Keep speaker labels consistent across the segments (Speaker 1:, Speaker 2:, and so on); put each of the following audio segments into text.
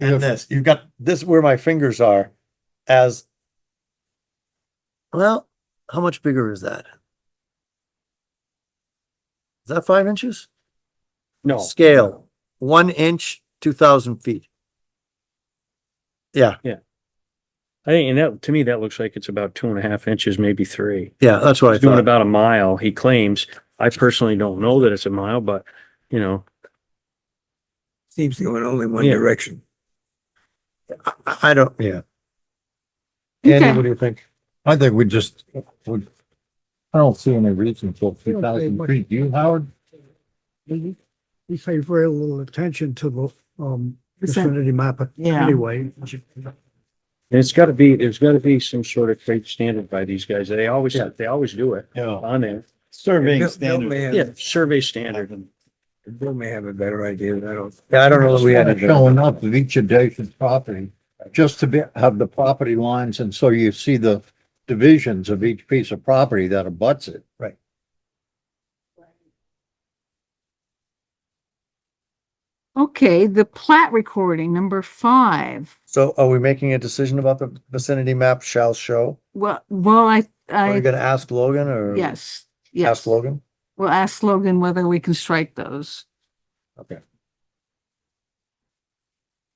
Speaker 1: and
Speaker 2: Yeah.
Speaker 1: this, you've got this where my fingers are as. Well, how much bigger is that? Is that five inches?
Speaker 3: Oh.
Speaker 2: No,
Speaker 1: Scale, one inch, two thousand feet. Yeah,
Speaker 2: I think, and that, to me, that looks like it's about two and a half inches, maybe three.
Speaker 1: yeah, that's what I
Speaker 2: He's doing
Speaker 1: thought.
Speaker 2: about a mile, he claims. I personally don't know that it's a mile, but, you know,
Speaker 4: Seems to go in only one
Speaker 2: Yeah.
Speaker 4: direction.
Speaker 1: I, I don't, yeah.
Speaker 5: Okay.
Speaker 1: Andy, what do you think?
Speaker 3: I think we just, would, I don't see any reason for
Speaker 6: We
Speaker 3: two
Speaker 6: don't pay
Speaker 3: thousand
Speaker 6: much.
Speaker 3: feet, you, Howard?
Speaker 6: We Mm-hmm. we pay very little attention to the, um,
Speaker 5: Percent.
Speaker 6: vicinity map
Speaker 5: Yeah.
Speaker 6: anyway.
Speaker 2: and it's gotta be, there's gotta be some sort of trade standard by these guys. They always,
Speaker 1: Yeah.
Speaker 2: they always do it
Speaker 1: Yeah.
Speaker 2: on there.
Speaker 4: Bill
Speaker 1: Surveying
Speaker 4: Bill may
Speaker 2: Yeah,
Speaker 4: have,
Speaker 2: survey standard.
Speaker 4: Bill may have a better idea than I don't.
Speaker 1: Yeah, I don't know that we had.
Speaker 3: Kinda
Speaker 1: it.
Speaker 3: Showing up at each adjacent property, just to be, have the property lines, and so you see the divisions of each piece of property that abuts it.
Speaker 5: Okay, the plat recording, number five.
Speaker 1: So are we making a decision about the vicinity map shall show?
Speaker 5: Well, well, I,
Speaker 1: Are you
Speaker 5: I,
Speaker 1: gonna ask Logan or?
Speaker 5: yes,
Speaker 1: Ask
Speaker 5: yes.
Speaker 1: Logan?
Speaker 5: We'll ask Logan whether we can strike those.
Speaker 1: Okay.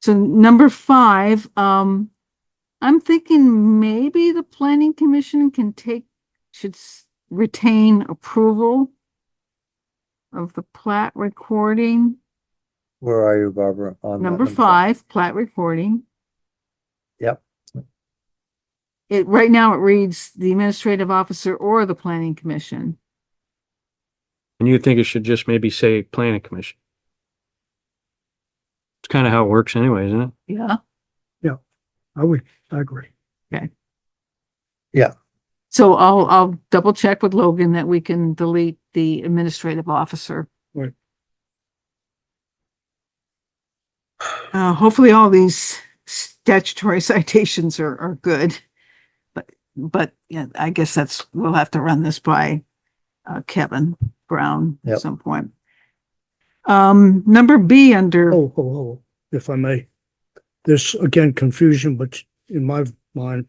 Speaker 5: So number five, um, I'm thinking maybe the planning commission can take, should s- retain approval of the plat recording,
Speaker 1: Where are you, Barbara? on that
Speaker 5: number five, plat recording.
Speaker 1: Yep.
Speaker 5: It, right now it reads the administrative officer or the planning commission.
Speaker 2: And you think it should just maybe say planning commission? It's kind of how it works anyway, isn't it?
Speaker 5: Yeah.
Speaker 6: I would, I agree.
Speaker 5: So I'll, I'll double check with Logan that we can delete the administrative officer.
Speaker 6: Right.
Speaker 5: Uh, hopefully all these statutory citations are, are good. But, but yeah, I guess that's, we'll have to run this by, uh, Kevin Brown
Speaker 1: Yep.
Speaker 5: at some point. Um, number B under.
Speaker 6: Oh, oh, oh, if I may. There's again confusion, but in my mind,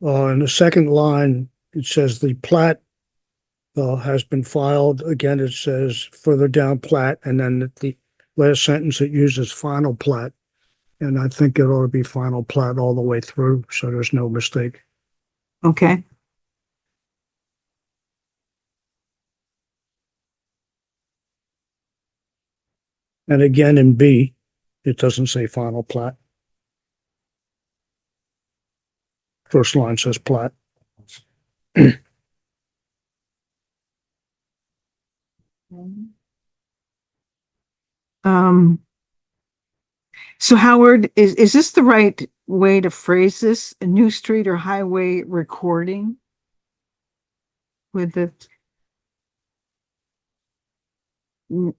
Speaker 6: uh, in the second line, it says the plat uh, has been filed. Again, it says further down plat, and then at the last sentence, it uses final plat. And I think it ought to be final plat all the way through, so there's no mistake.
Speaker 5: Okay.
Speaker 6: And again, in B, it doesn't say final plat. First line says plat.
Speaker 5: Mm-hmm. Um. So Howard, is, is this the right way to phrase this? A new street or highway recording? With the. N-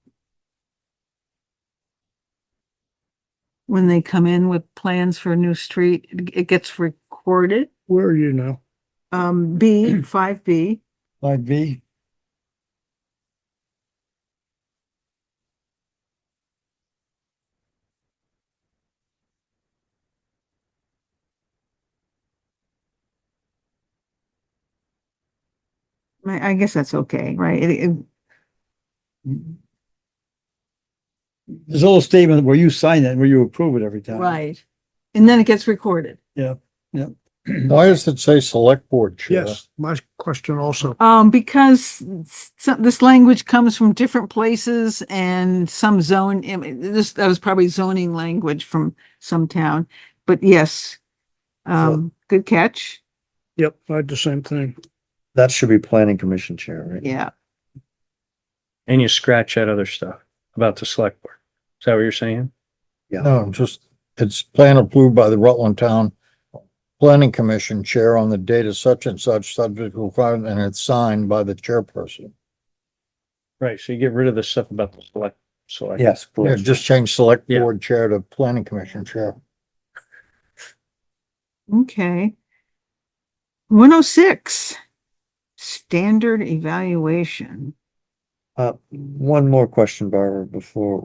Speaker 5: When they come in with plans for a new street, it- it gets recorded,
Speaker 6: Where are you now?
Speaker 5: um, B, five B.
Speaker 1: Line B?
Speaker 5: I, I guess that's okay, right? It- it-
Speaker 7: There's a little statement where you sign it, where you approve it every time.
Speaker 5: Right. And then it gets recorded.
Speaker 3: Why does it say select board chair?
Speaker 6: Yes, my question also.
Speaker 5: Um, because s- some, this language comes from different places and some zone, I mean, this, that was probably zoning language from some town, but yes. Um, good catch.
Speaker 6: Yep, I had the same thing.
Speaker 1: That should be planning commission chair, right?
Speaker 5: Yeah.
Speaker 2: And you scratch that other stuff about the select board. Is that what you're saying?
Speaker 3: No, just, it's plan approved by the Rutland Town Planning Commission Chair on the date of such and such subject requirement, and it's signed by the chairperson.
Speaker 2: Right, so you get rid of the stuff about the select, select.
Speaker 1: Yes,
Speaker 3: Yeah,
Speaker 1: please.
Speaker 3: just change select
Speaker 2: Yeah.
Speaker 3: board chair to planning commission chair.
Speaker 5: Okay. One oh six. Standard evaluation.
Speaker 1: Uh, one more question, Barbara, before